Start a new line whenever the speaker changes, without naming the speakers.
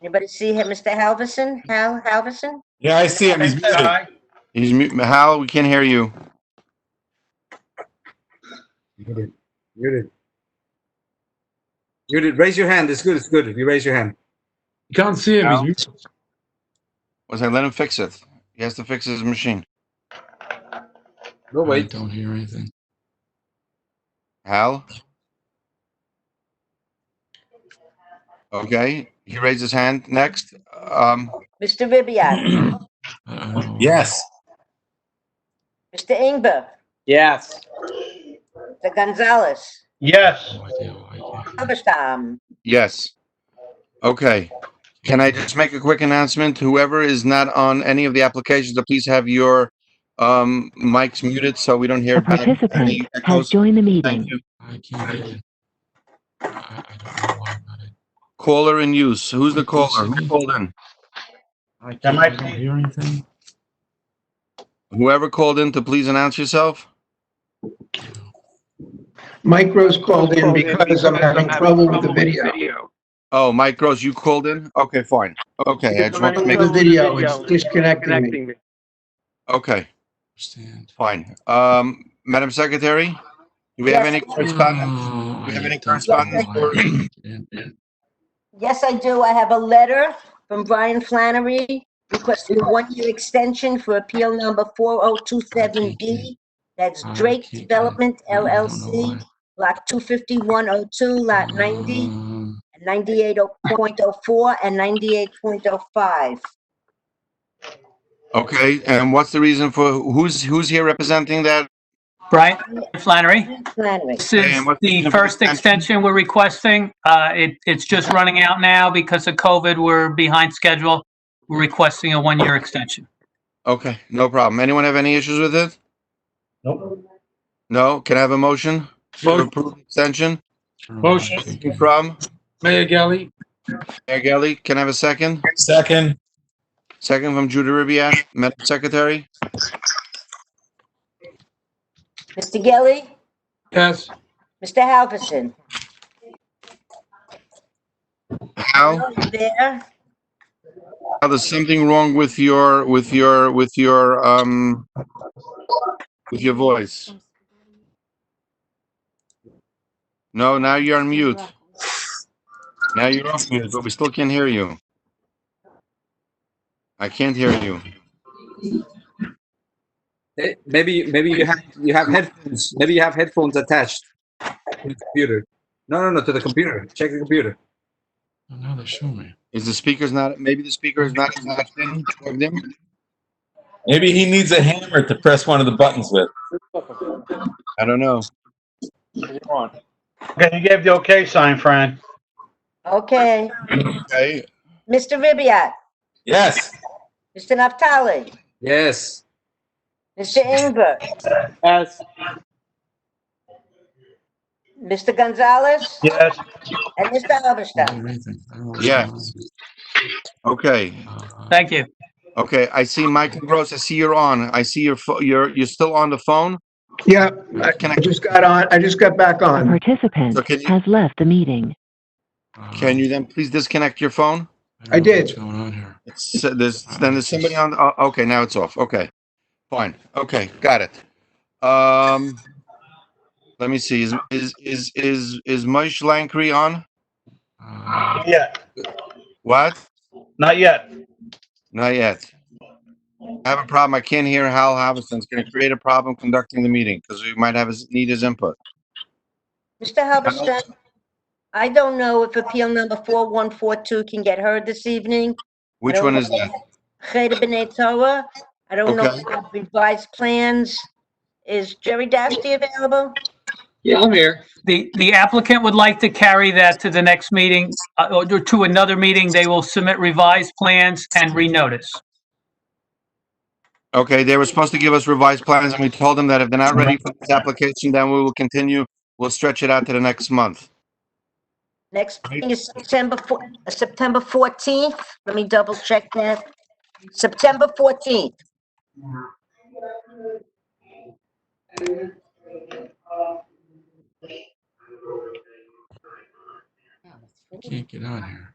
Anybody see him, Mr. Halverson? Hal Halverson?
Yeah, I see him. He's muted.
Aye.
He's mute. Hal, we can't hear you.
Muted. Muted. Muted. Raise your hand. It's good. It's good. If you raise your hand.
You can't see him. He's muted.
Was I let him fix it? He has to fix his machine.
No,
I
wait.
don't hear anything.
Hal? Okay, he raised his hand. Next. Um,
Mr. Ribbiat?
Uh-oh.
Yes.
Mr. Ingber?
Yes.
Mr. Gonzalez?
Yes,
Oh, I do, I do.
Halberstam?
yes. Okay. Can I just make a quick announcement? Whoever is not on any of the applications, uh, please have your um, mics muted so we don't hear.
A
back any
participant has
echoes.
joined the
Thank
meeting.
you.
I can't hear you. I, I don't know why I'm not in.
Caller in use. Who's the caller? Who called in?
I, can't,
Am
I
I
don't
please-
hear anything.
Whoever called in to please announce yourself.
Mike Rose called in because I'm having trouble with the video.
Oh, Mike Gross, you called in? Okay, fine. Okay, I just want to make,
The video is disconnecting me.
okay,
Understand.
fine. Um, Madam Secretary, do we have any correspondence?
Oh,
we have
I
any
don't
correspondence
know why I can't hear.
Yes, I do. I have a letter from Brian Flannery requesting a one-year extension for appeal number 4027B. That's
I
Drake
can't- I-
Development
I don't know
LLC,
why.
Lot 25102, Lot 90,
Um,
98.04 and 98.05.
Okay, and what's the reason for, who's, who's here representing that?
Brian Flannery,
Flannery.
this
And
is
what's
the
the
first
extension?
extension we're requesting. Uh, it, it's just running out now because of COVID. We're behind schedule. We're requesting a one-year extension.
Okay, no problem. Anyone have any issues with it?
Nope.
No? Can I have a motion? for
Motion.
approval Extension
I don't know why I Motion. can't hear.
from
Mayor Gelli.
Mayor Gelli. Can I have a second?
Second.
Second from Judy Ribbiat, Madam Secretary?
Mr. Gelli,
Yes.
Mr. Halverson.
Hal?
Are you There,
Now, there's something wrong with your, with your, with your, um, with your voice. No, now you're on mute. Now you're off mute, but we still can't hear you. I can't hear you.
Eh, Maybe maybe you have you have headphones. Maybe you have headphones attached to the computer. No, no, no. To the computer. Check the computer.
Oh, Now they show me.
Is the speaker's not, maybe the speaker is not, is not in, plugged in?
Maybe he needs a hammer to press one of the buttons with.
I don't know.
okay, you gave the okay sign, Fran.
okay.
Okay,
Mr. Ribbiat,
Yes.
Mr. Naftali,
Yes.
Mr. Ingber,
Yes.
Mr. Gonzalez,
Yes,
and Mr.
I don't
Halberstam.
hear anything. I don't know what's
Yeah.
going on.
okay,
Uh,
Thank you.
okay. I see Michael Gross. I see you're on. I see your, pho- you're, you're still on the phone. Uh,
Yeah, I
Can I,
I just got on, I just got back
A
on.
participant
So can you-
has left the meeting.
uh,
can you then please disconnect your phone?
don't
I
know what's
did.
going on here.
It's, uh, there's, then there's somebody on, oh, okay, now it's off. Okay, fine. Okay, got it. Um, let me see, is, is, is, is, is Moish Langkry on?
Uh,
not yet,
What?
not yet.
Not yet. I have a problem. I can't hear Hal Halverson. It's gonna create a problem conducting the meeting because we might have his, need his input.
Mr. Halberstam, I don't know if appeal number 4142 can get heard this evening.
Which one is that?
Cheta B'nai Torah. I don't know
Okay.
if the revised plans. Is Jerry Dasty available?
The, the applicant would like to carry that to the next meeting, uh, or to another meeting. They will submit revised plans and renotice.
Okay, they were supposed to give us revised plans and we told them that if they're not ready for this application, then we will continue. We'll stretch it out to the next month.
Next meeting is September, four- uh, September 14th. Let me double check that. September 14th.
I can't get on here.